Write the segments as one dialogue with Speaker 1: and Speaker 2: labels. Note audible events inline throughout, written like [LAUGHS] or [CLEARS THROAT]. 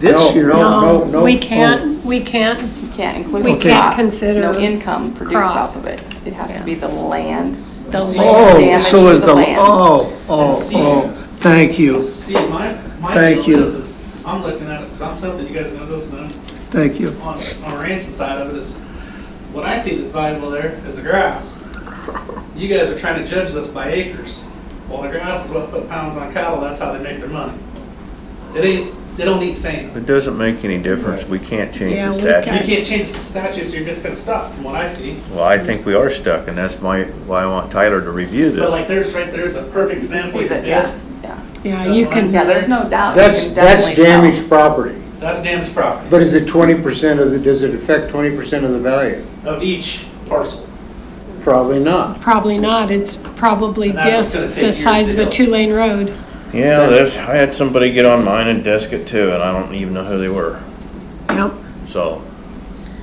Speaker 1: this
Speaker 2: No,
Speaker 1: year.
Speaker 2: no.
Speaker 1: no.
Speaker 3: We can't, we can't,
Speaker 4: You can't include.
Speaker 3: we
Speaker 4: the
Speaker 3: can't
Speaker 4: crop.
Speaker 3: consider.
Speaker 4: No income produced
Speaker 3: crop.
Speaker 4: off of it. It has to be the land.
Speaker 3: The land.
Speaker 1: Oh,
Speaker 4: Damage
Speaker 1: so
Speaker 4: to
Speaker 1: is
Speaker 4: the
Speaker 1: the,
Speaker 4: land.
Speaker 1: oh, oh, oh, thank you,
Speaker 5: See, my, my
Speaker 1: Thank
Speaker 5: deal
Speaker 1: you.
Speaker 5: is, is I'm looking at it, because I'm something, you guys know this, and I'm
Speaker 1: thank you.
Speaker 5: on, on the ranching side of it, is what I see that's valuable there is the grass. You guys are trying to judge this by acres. Well, the grass is what put pounds on cattle, that's how they make their money. It ain't, they don't eat sand.
Speaker 6: It doesn't make any difference, we can't change
Speaker 3: Yeah,
Speaker 6: the
Speaker 3: we
Speaker 5: You
Speaker 6: statute.
Speaker 5: can't change the statutes, you're just gonna stop, from what I see.
Speaker 6: Well, I think we are stuck, and that's my, why I want Tyler to review
Speaker 5: But like,
Speaker 6: this.
Speaker 5: there's, right there's a perfect example,
Speaker 4: See
Speaker 5: of
Speaker 4: that, yeah,
Speaker 5: this,
Speaker 4: Yeah,
Speaker 3: Yeah, you can.
Speaker 4: yeah, there's no doubt. You
Speaker 2: That's,
Speaker 4: can
Speaker 2: that's
Speaker 4: definitely tell.
Speaker 2: damaged property,
Speaker 5: that's damaged property
Speaker 2: but is it twenty percent of the, does it affect twenty percent of the value?
Speaker 5: of each parcel.
Speaker 2: Probably not.
Speaker 3: Probably not, it's probably
Speaker 5: And that's what's
Speaker 3: just
Speaker 5: gonna take
Speaker 3: the size
Speaker 5: years
Speaker 3: of
Speaker 5: to
Speaker 3: a
Speaker 5: do.
Speaker 3: two-lane road.
Speaker 6: Yeah, there's, I had somebody get on mine and desk it too, and I don't even know who they were,
Speaker 3: Yep.
Speaker 6: so,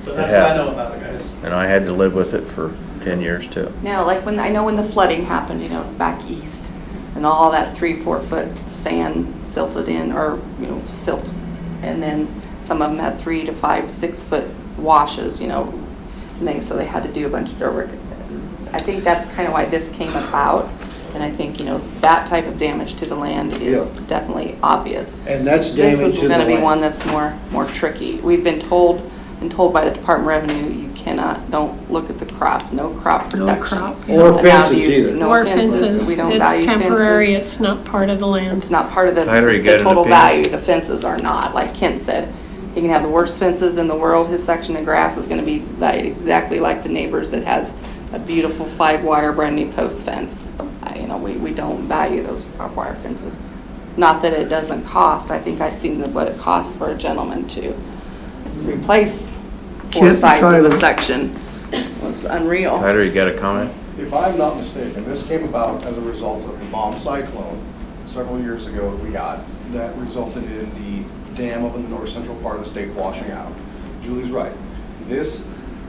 Speaker 5: But that's
Speaker 6: It
Speaker 5: what I
Speaker 6: happened.
Speaker 5: know about it, guys.
Speaker 6: and I had to live with it for ten years too.
Speaker 4: No, like when, I know when the flooding happened, you know, back east, and all that three, four foot sand silted in, or, you know, silt. And then some of them had three to five, six foot washes, you know, and things, so they had to do a bunch of dirt work. I think that's kind of why this came about, and I think, you know, that type of damage to the land is
Speaker 2: Yeah.
Speaker 4: definitely obvious.
Speaker 2: And that's
Speaker 4: This
Speaker 2: damage
Speaker 4: is
Speaker 2: to the
Speaker 4: gonna be
Speaker 2: land.
Speaker 4: one that's more, more tricky. We've been told, and told by the Department of Revenue, you cannot, don't look at the crop, no crop
Speaker 3: No
Speaker 4: production.
Speaker 3: crop.
Speaker 2: Or
Speaker 4: And how do
Speaker 2: fences
Speaker 4: you-
Speaker 2: either.
Speaker 4: No
Speaker 3: Or
Speaker 4: fences,
Speaker 3: fences,
Speaker 4: we don't value
Speaker 3: it's temporary,
Speaker 4: fences.
Speaker 3: it's not part of the land.
Speaker 4: It's not part of the,
Speaker 6: Tyler, you
Speaker 4: the
Speaker 6: got an
Speaker 4: total
Speaker 6: opinion?
Speaker 4: value, the fences are not, like Kent said. You can have the worst fences in the world, his section of grass is gonna be valued exactly like the neighbors that has a beautiful five wire brand new post fence. I- You know, we, we don't value those barbed wire fences. Not that it doesn't cost, I think I've seen the- what it costs for a gentleman to replace four
Speaker 1: Kent,
Speaker 4: sides of
Speaker 1: Tyler.
Speaker 4: a section. It was unreal.
Speaker 6: Tyler, you got a comment?
Speaker 7: If I'm not mistaken, this came about as a result of the bomb cyclone several years ago that we got that resulted in the dam up in the north central part of the state washing out. Julie's right. This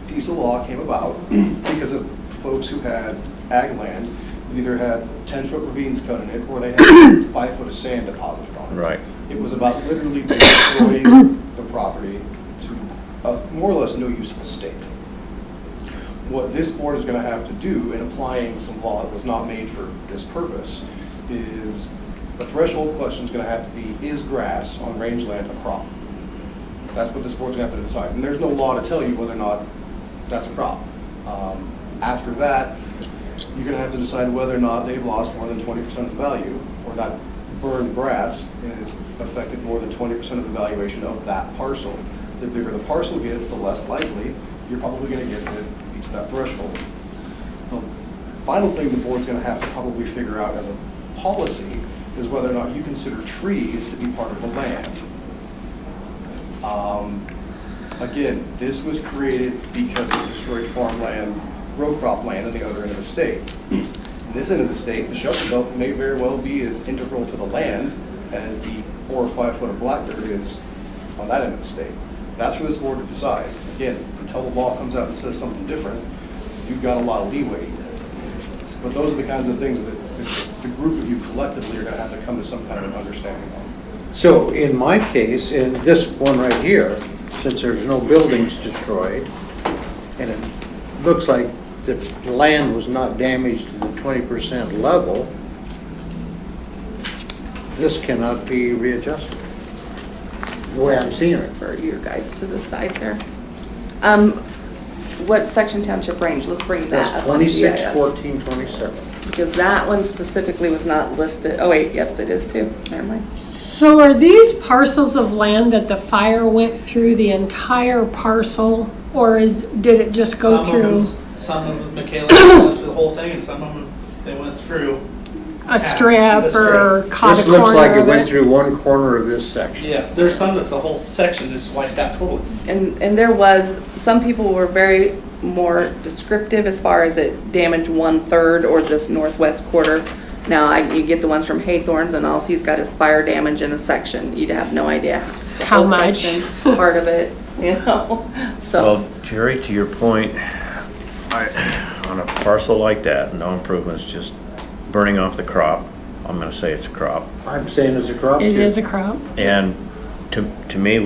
Speaker 7: piece of law came about [CLEARS THROAT] because of folks who had ag land that either had ten-foot ravines cut in it or they [COUGHS] had five foot of sand deposited on it.
Speaker 6: Right.
Speaker 7: It was about literally destroying the property to a more or less no useful state what this board is gonna have to do in applying some law that was not made for this purpose is, a threshold question's gonna have to be, is grass on rangeland a crop? That's what this board's gonna have to decide, and there's no law to tell you whether or not that's a crop. Um, After that, you're gonna have to decide whether or not they've lost more than twenty percent of the value, or that burned grass has affected more than twenty percent of the valuation of that parcel. The bigger the parcel gets, the less likely you're probably gonna get that it beats that threshold. The Final thing the board's gonna have to probably figure out as a policy is whether or not you consider trees to be part of the land. Um, Again, this was created because it destroyed farmland, row crop land on the other end of the state. In This end of the state, the shelter belt may very well be as integral to the land as the four or five foot of black dirt is on that end of the state. That's for this board to decide. Again, until the law comes out and says something different, you've got a lot of leeway here. But those are the kinds of things that the- the group of you collectively are gonna have to come to some kind of understanding on.
Speaker 2: So in my case, in this one right here, since there's no buildings destroyed, and it looks like the land was not damaged to the twenty percent level, this cannot be readjusted, the way I'm seeing it.
Speaker 4: For you guys to decide there. Um, what section township range, let's bring that
Speaker 2: That's
Speaker 4: up. on the
Speaker 2: twenty-six,
Speaker 4: GIS.
Speaker 2: fourteen, twenty-seven.
Speaker 4: Because that one specifically was not listed, oh wait, yep, it is too, never mind.
Speaker 3: So are these parcels of land that the fire went through the entire parcel? Or is, did it just go
Speaker 5: Some of
Speaker 3: through
Speaker 5: them- Some of them, Michaela, went through the whole thing, and some of them, they went through,
Speaker 3: a strip
Speaker 5: the
Speaker 3: or caught a
Speaker 2: This looks like
Speaker 3: corner
Speaker 2: it
Speaker 3: of
Speaker 2: went
Speaker 3: it?
Speaker 2: through one corner of this section.
Speaker 5: yeah, there's some that's a whole section that's wiped out totally.
Speaker 4: And, and there was, some people were very more descriptive as far as it damaged one-third or this northwest quarter. Now, I, you get the ones from Haythorns and all he's got is fire damage in a section, you'd have no idea. It's a
Speaker 3: How
Speaker 4: whole
Speaker 3: much?
Speaker 4: section, Part of it, [LAUGHS] you know, so,
Speaker 6: Well, Jerry, to your point, I, on a parcel like that, no improvements, just burning off the crop, I'm gonna say it's a crop.
Speaker 2: I'm saying it's a crop.
Speaker 3: It
Speaker 2: too.
Speaker 3: is a crop.
Speaker 6: And to, to me,